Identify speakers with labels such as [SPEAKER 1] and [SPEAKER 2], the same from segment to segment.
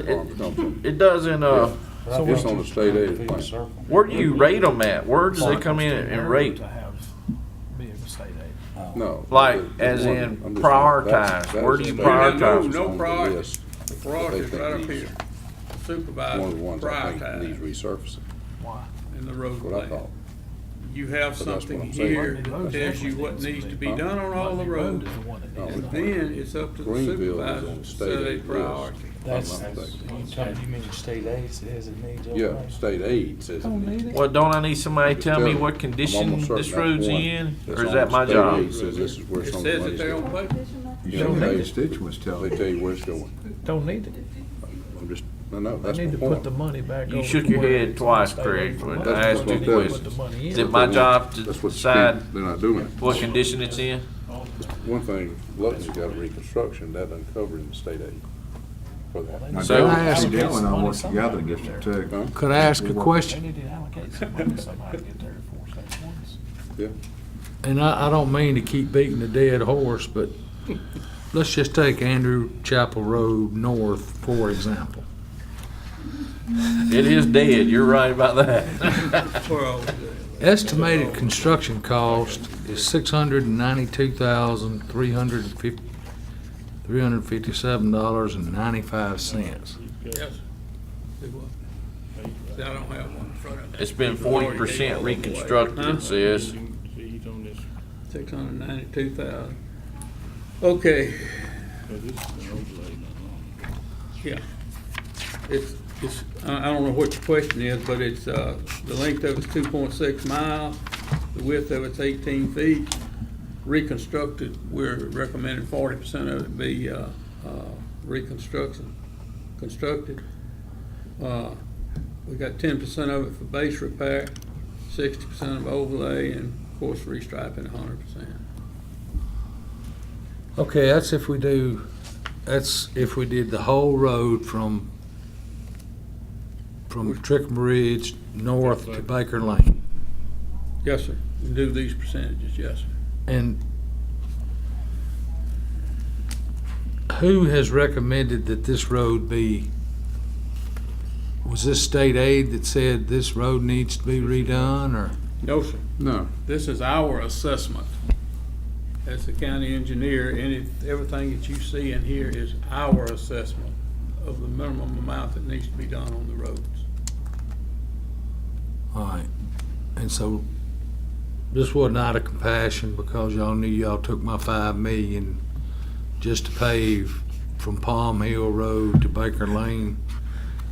[SPEAKER 1] It,
[SPEAKER 2] No,
[SPEAKER 1] it doesn't, uh,
[SPEAKER 2] So It's on the state aid plan.
[SPEAKER 1] where do you rate them at? Where does they come in and rate?
[SPEAKER 3] To have, be a state aid.
[SPEAKER 2] No.
[SPEAKER 1] Like,
[SPEAKER 2] the- the
[SPEAKER 1] as
[SPEAKER 2] one-
[SPEAKER 1] in
[SPEAKER 2] I'm just saying, that's-
[SPEAKER 1] prioritize.
[SPEAKER 2] that's
[SPEAKER 1] Where do you
[SPEAKER 2] the state
[SPEAKER 1] prioritize?
[SPEAKER 2] aid
[SPEAKER 4] No, no
[SPEAKER 2] on the
[SPEAKER 4] priority.
[SPEAKER 2] list.
[SPEAKER 4] Fraud is right up here,
[SPEAKER 2] One of the
[SPEAKER 4] supervised,
[SPEAKER 2] ones I think needs
[SPEAKER 4] prioritize
[SPEAKER 2] resurfacing,
[SPEAKER 3] Why?
[SPEAKER 4] in the road
[SPEAKER 2] what I
[SPEAKER 4] plan.
[SPEAKER 2] thought.
[SPEAKER 4] You have
[SPEAKER 2] But that's what
[SPEAKER 4] something
[SPEAKER 2] I'm saying.
[SPEAKER 4] here
[SPEAKER 3] Road
[SPEAKER 4] that tells you what
[SPEAKER 3] definitely
[SPEAKER 4] needs to be
[SPEAKER 2] needs to be-
[SPEAKER 4] done on all the
[SPEAKER 3] Monday Road
[SPEAKER 4] roads.
[SPEAKER 3] is the one that
[SPEAKER 2] No,
[SPEAKER 3] needs
[SPEAKER 2] it's
[SPEAKER 3] to be done.
[SPEAKER 4] Then it's up to the
[SPEAKER 2] Greenville is on
[SPEAKER 4] supervisor
[SPEAKER 2] the
[SPEAKER 4] to
[SPEAKER 2] state
[SPEAKER 4] set a
[SPEAKER 2] aid list.
[SPEAKER 4] priority.
[SPEAKER 2] if
[SPEAKER 5] That's,
[SPEAKER 2] I'm not mistaken.
[SPEAKER 5] sometimes you mention state aid, says it needs. all
[SPEAKER 2] Yeah,
[SPEAKER 5] that.
[SPEAKER 2] state aid says it
[SPEAKER 5] Don't
[SPEAKER 2] needs.
[SPEAKER 5] need it.
[SPEAKER 1] Well, don't I need somebody to
[SPEAKER 2] Just
[SPEAKER 1] tell
[SPEAKER 2] tell
[SPEAKER 1] me
[SPEAKER 2] them.
[SPEAKER 1] what
[SPEAKER 2] I'm
[SPEAKER 1] condition
[SPEAKER 2] almost certain
[SPEAKER 1] this
[SPEAKER 2] that's
[SPEAKER 1] road's
[SPEAKER 2] one
[SPEAKER 1] in,
[SPEAKER 2] that's
[SPEAKER 1] or is
[SPEAKER 2] on
[SPEAKER 1] that
[SPEAKER 2] the
[SPEAKER 1] my
[SPEAKER 2] state
[SPEAKER 1] job?
[SPEAKER 2] aid Says this is where
[SPEAKER 4] It
[SPEAKER 2] some of the
[SPEAKER 4] says it
[SPEAKER 2] money's
[SPEAKER 4] there on
[SPEAKER 2] going.
[SPEAKER 4] paper.
[SPEAKER 2] You
[SPEAKER 6] Don't
[SPEAKER 2] know,
[SPEAKER 6] make
[SPEAKER 2] they,
[SPEAKER 6] constituents tell
[SPEAKER 2] they
[SPEAKER 6] them.
[SPEAKER 2] tell you where it's going.
[SPEAKER 3] Don't need it.
[SPEAKER 2] I'm just, no, no,
[SPEAKER 3] They
[SPEAKER 2] that's
[SPEAKER 3] need
[SPEAKER 2] my
[SPEAKER 3] to put
[SPEAKER 2] point.
[SPEAKER 3] the money back over.
[SPEAKER 1] You shook
[SPEAKER 3] to
[SPEAKER 1] your
[SPEAKER 3] where
[SPEAKER 1] head
[SPEAKER 3] it's
[SPEAKER 1] twice,
[SPEAKER 3] state aid
[SPEAKER 1] Craig,
[SPEAKER 3] for
[SPEAKER 1] when
[SPEAKER 3] money.
[SPEAKER 1] I
[SPEAKER 2] That's
[SPEAKER 1] asked
[SPEAKER 2] what
[SPEAKER 1] you
[SPEAKER 2] I'm
[SPEAKER 1] the
[SPEAKER 2] telling you.
[SPEAKER 3] Put the
[SPEAKER 1] question.
[SPEAKER 3] money
[SPEAKER 1] Is
[SPEAKER 3] in.
[SPEAKER 1] it my job to
[SPEAKER 2] That's what you
[SPEAKER 1] decide
[SPEAKER 2] think. They're not doing it.
[SPEAKER 1] what condition it's in?
[SPEAKER 2] One thing, Lutton's got reconstruction, that uncovered in the state aid for that.
[SPEAKER 6] Now,
[SPEAKER 1] So-
[SPEAKER 6] Dale and
[SPEAKER 3] Allocate
[SPEAKER 6] Dale and I work
[SPEAKER 3] some money
[SPEAKER 6] together in
[SPEAKER 3] somewhere.
[SPEAKER 6] District Two.
[SPEAKER 2] Huh?
[SPEAKER 7] Could I ask
[SPEAKER 6] We
[SPEAKER 7] a
[SPEAKER 6] work-
[SPEAKER 3] They
[SPEAKER 7] question?
[SPEAKER 3] need to allocate some money somehow to get there for state ones.
[SPEAKER 2] Yeah,
[SPEAKER 7] And I, I don't mean to keep beating a dead horse, but let's just take Andrew Chapel Road North, for example.
[SPEAKER 1] It is dead, you're right about that.
[SPEAKER 4] For all the-
[SPEAKER 7] Estimated construction cost is six hundred and ninety-two thousand, three hundred and fifty, three hundred and fifty-seven dollars and ninety-five cents.
[SPEAKER 4] Yes. It was. See, I don't have one in front of me.
[SPEAKER 1] It's been forty percent reconstructed, it says.
[SPEAKER 4] Six hundred ninety-two thousand. Okay. Yeah. It's, it's, I, I don't know what your question is, but it's, uh, the length of it's two point six miles, the width of it's eighteen feet. Reconstructed, we're recommending forty percent of it be, uh, uh, reconstruction, constructed. Uh, we got ten percent of it for base repair, sixty percent of overlay, and of course, restriping hundred percent.
[SPEAKER 7] Okay, that's if we do, that's if we did the whole road from, from Trickham Ridge north to Baker Lane.
[SPEAKER 4] Yes, sir. Do these percentages, yes, sir.
[SPEAKER 7] And who has recommended that this road be, was this state aid that said this road needs to be redone, or?
[SPEAKER 4] No, sir.
[SPEAKER 2] no,
[SPEAKER 4] This is our assessment. As the county engineer, any, everything that you see in here is our assessment of the minimum amount that needs to be done on the roads.
[SPEAKER 7] All right, and so this wasn't out of compassion because y'all knew y'all took my five million just to pave from Palm Hill Road to Baker Lane.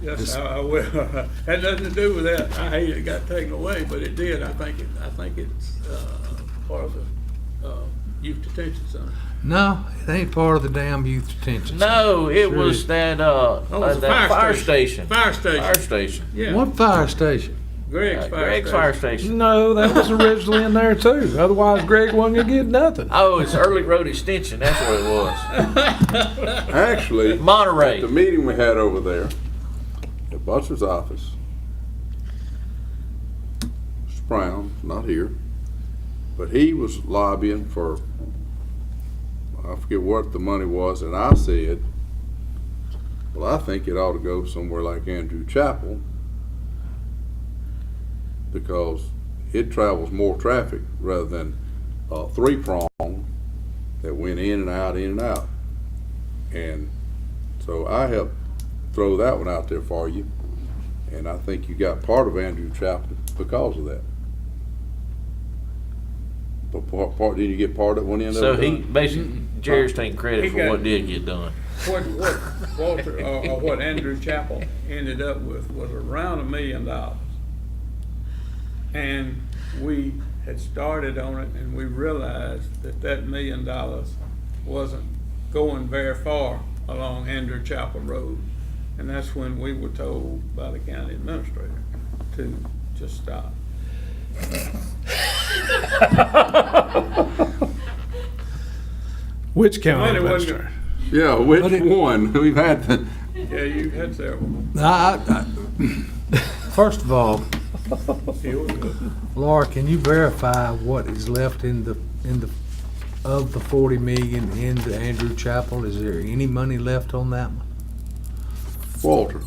[SPEAKER 4] Yes, I, I will. Had nothing to do with that. I hate it got taken away, but it did. I think it, I think it's, uh, part of the, uh, youth detention center.
[SPEAKER 7] No, it ain't part of the damn youth detention. center.
[SPEAKER 1] No, it
[SPEAKER 7] Sure
[SPEAKER 1] was
[SPEAKER 7] is.
[SPEAKER 1] that, uh,
[SPEAKER 4] Oh, it's
[SPEAKER 1] uh,
[SPEAKER 4] a
[SPEAKER 1] that fire station.
[SPEAKER 4] Fire
[SPEAKER 1] Fire
[SPEAKER 4] station,
[SPEAKER 1] station.
[SPEAKER 4] yeah.
[SPEAKER 7] What fire station?
[SPEAKER 4] Greg's
[SPEAKER 1] Uh,
[SPEAKER 4] fire
[SPEAKER 1] Greg's fire
[SPEAKER 4] station.
[SPEAKER 1] station.
[SPEAKER 7] No, that was originally in there too, otherwise Greg wasn't gonna get nothing.
[SPEAKER 1] Oh, it's Early Road Extension, that's what it was.
[SPEAKER 2] actually. At the
[SPEAKER 1] Monterey.
[SPEAKER 2] meeting we had over there, at Butler's office, Mr. Brown, not here, but he was lobbying for, I forget what the money was, and I said, well, I think it ought to go somewhere like Andrew Chapel because it travels more traffic rather than a three-prong that went in and out, in and out. And so I helped throw that one out there for you, and I think you got part of Andrew Chapel because of that. But part, part, did you get part of one end
[SPEAKER 1] So
[SPEAKER 2] of it? Uh,
[SPEAKER 1] he, basically, Jerry's taking
[SPEAKER 4] Mm-hmm. He
[SPEAKER 1] credit for
[SPEAKER 4] got-
[SPEAKER 1] what did get done.
[SPEAKER 4] What, what Walter, or, or what Andrew Chapel ended up with was around a million dollars. And we had started on it and we realized that that million dollars wasn't going very far along Andrew Chapel Road. And that's when we were told by the county administrator to just stop.
[SPEAKER 3] Which county
[SPEAKER 4] Money wasn't-
[SPEAKER 3] administrator?
[SPEAKER 2] Yeah,
[SPEAKER 7] But
[SPEAKER 2] which
[SPEAKER 7] it-
[SPEAKER 2] one? We've had the,
[SPEAKER 4] Yeah, you had several.
[SPEAKER 7] I, I, first of all,
[SPEAKER 4] It was good.
[SPEAKER 7] Laura, can you verify what is left in the, in the, of the forty million in the Andrew Chapel? Is there any money left on that one?
[SPEAKER 2] Walter.